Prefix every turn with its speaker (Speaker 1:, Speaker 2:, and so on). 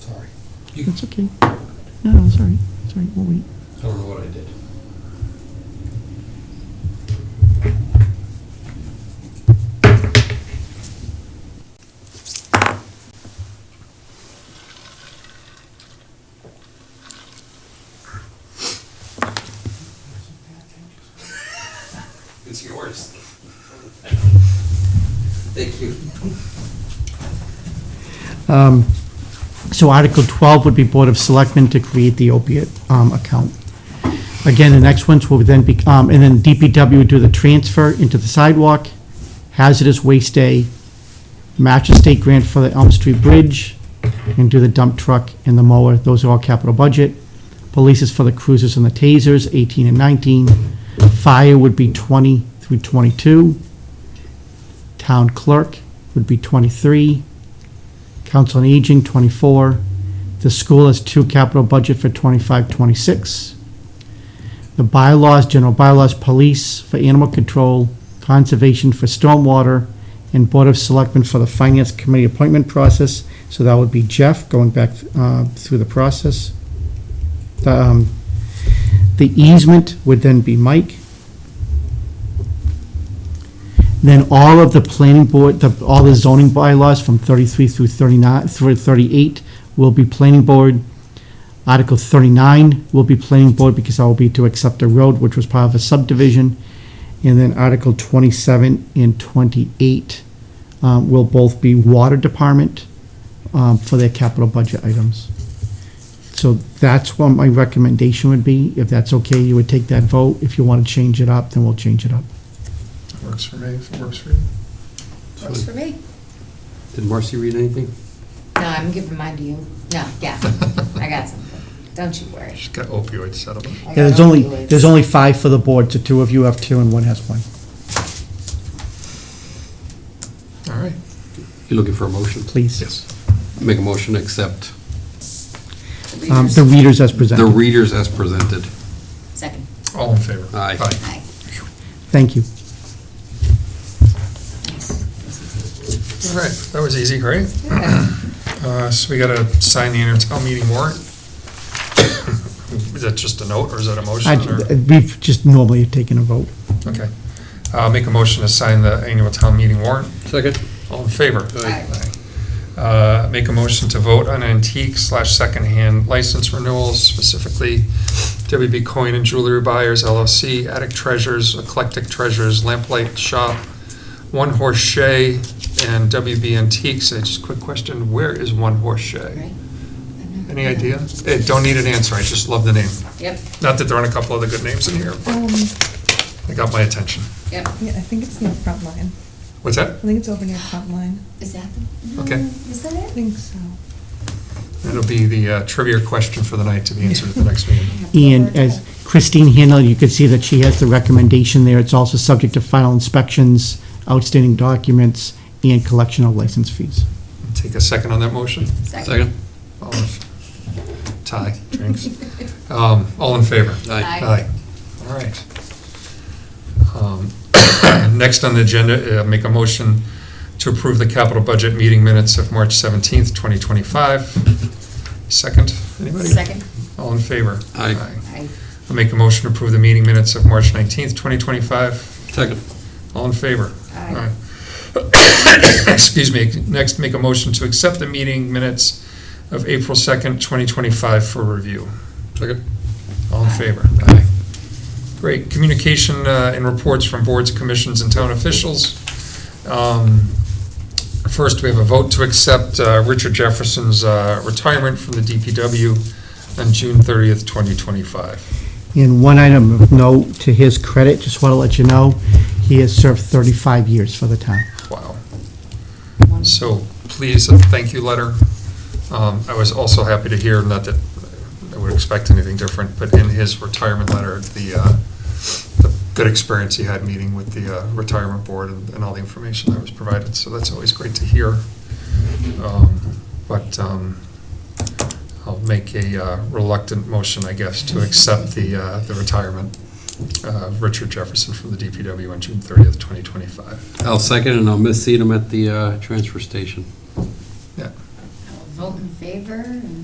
Speaker 1: You-
Speaker 2: That's okay. No, no, it's all right, it's all right, we'll wait.
Speaker 1: I don't know what I did. It's yours. Thank you.
Speaker 2: Um, So Article 12 would be Board of Selectmen to create the opiate um, account. Again, the next ones will then be, um, and then DPW would do the transfer into the sidewalk, hazardous waste day, match a state grant for the Elm Street Bridge, and do the dump truck and the mower. Those are all capital budget. Police is for the cruisers and the tasers, 18 and 19. Fire would be 20 through 22. Town clerk would be 23. Council on Aging, 24. The school has two capital budget for 25, 26. The bylaws, general bylaws, police for animal control, conservation for stormwater, and Board of Selectmen for the Finance Committee appointment process. So that would be Jeff going back uh, through the process. The um, the easement would then be Mike. Then all of the planning board, the, all the zoning bylaws from thirty-three through thirty-nine, through thirty-eight will be planning board. Article thirty-nine will be planning board because that will be to accept a road, which was part of a subdivision. And then Article twenty-seven and twenty-eight, um, will both be water department, um, for their capital budget items. So that's what my recommendation would be. If that's okay, you would take that vote. If you want to change it up, then we'll change it up.
Speaker 3: Works for me, if it works for you.
Speaker 4: Works for me.
Speaker 1: Did Marcy read anything?
Speaker 4: No, I'm giving mine to you. No, yeah, I got something. Don't you worry.
Speaker 3: She's got opioid settlement.
Speaker 4: I
Speaker 2: Yeah, there's
Speaker 4: got
Speaker 2: only,
Speaker 4: opioids.
Speaker 2: there's only five for the board, so two of you have two and one has one.
Speaker 3: All right.
Speaker 1: You looking for a motion?
Speaker 2: Please.
Speaker 3: Yes.
Speaker 1: Make a motion to accept
Speaker 2: Um, The readers as
Speaker 1: the
Speaker 2: presented.
Speaker 1: readers as presented.
Speaker 4: Second.
Speaker 3: All in favor?
Speaker 1: Aye.
Speaker 4: Aye.
Speaker 2: Thank you.
Speaker 4: Nice.
Speaker 3: All right, that was easy, right? Uh, So we got to sign the intertown meeting warrant? Is that just a note, or is that a
Speaker 2: I-
Speaker 3: motion? or-
Speaker 2: We've just normally taken a vote.
Speaker 3: Okay. I'll make a motion to sign the annual town meeting warrant.
Speaker 1: Second?
Speaker 3: All in favor?
Speaker 4: Aye.
Speaker 3: Uh, Make a motion to vote on antique slash secondhand license renewals, specifically WB Coin and Jewelry Buyers LLC, Attic Treasures, Eclectic Treasures, Lamplight Shop, One Horse Shay, and WB Antiques. I Just a quick question, where is One Horse Shay?
Speaker 4: Right? I know.
Speaker 3: Any idea? Eh, Don't need an answer, I just love the name.
Speaker 4: Yep,
Speaker 3: Not that there aren't a couple other good names in here, but
Speaker 5: Um,
Speaker 3: it got my attention.
Speaker 4: yep.
Speaker 5: yeah, I think it's near front line.
Speaker 3: What's that?
Speaker 5: I think it's over near front line.
Speaker 4: Is that the?
Speaker 3: Okay.
Speaker 4: Is that
Speaker 5: I
Speaker 4: it?
Speaker 5: think so.
Speaker 3: That'll be the uh, trivia question for the night to be answered at the next meeting.
Speaker 2: And as Christine handled, you could see that she has the recommendation there. It's also subject to final inspections, outstanding documents, and collection of license fees.
Speaker 3: Take a second on that motion.
Speaker 1: Second?
Speaker 3: All in, tie, drinks. Um, all in favor?
Speaker 4: Aye.
Speaker 3: All right. Um, Next on the agenda, uh, make a motion to approve the capital budget meeting minutes of March seventeenth, twenty twenty-five. Second, anybody?
Speaker 4: Second.
Speaker 3: All in favor?
Speaker 1: Aye.
Speaker 4: Aye.
Speaker 3: I'll make a motion to approve the meeting minutes of March nineteenth, twenty twenty-five.
Speaker 1: Second.
Speaker 3: All in favor?
Speaker 4: Aye.
Speaker 3: Excuse me. Next, make a motion to accept the meeting minutes of April 2nd, 2025 for review.
Speaker 1: Second.
Speaker 3: All in favor? Aye. Great. Communication uh, and reports from boards, commissions, and town officials. Um, First, we have a vote to accept uh, Richard Jefferson's uh, retirement from the DPW on June 30th, 2025.
Speaker 2: And one item of note, to his credit, just want to let you know, he has served 35 years for the town.
Speaker 3: Wow.
Speaker 4: One.
Speaker 3: So please, a thank you letter. Um, I was also happy to hear, not that I would expect anything different, but in his retirement letter, the, uh, the good experience he had meeting with the uh, retirement board and and all the information that was provided, so that's always great to hear. Um, But um, I'll make a uh, reluctant motion, I guess, to accept the, uh, the retirement of Richard Jefferson from the DPW on June 30th, 2025.
Speaker 1: I'll second, and I'll miss seat him at the uh, transfer station.
Speaker 3: Yeah.
Speaker 4: I will Vote in favor and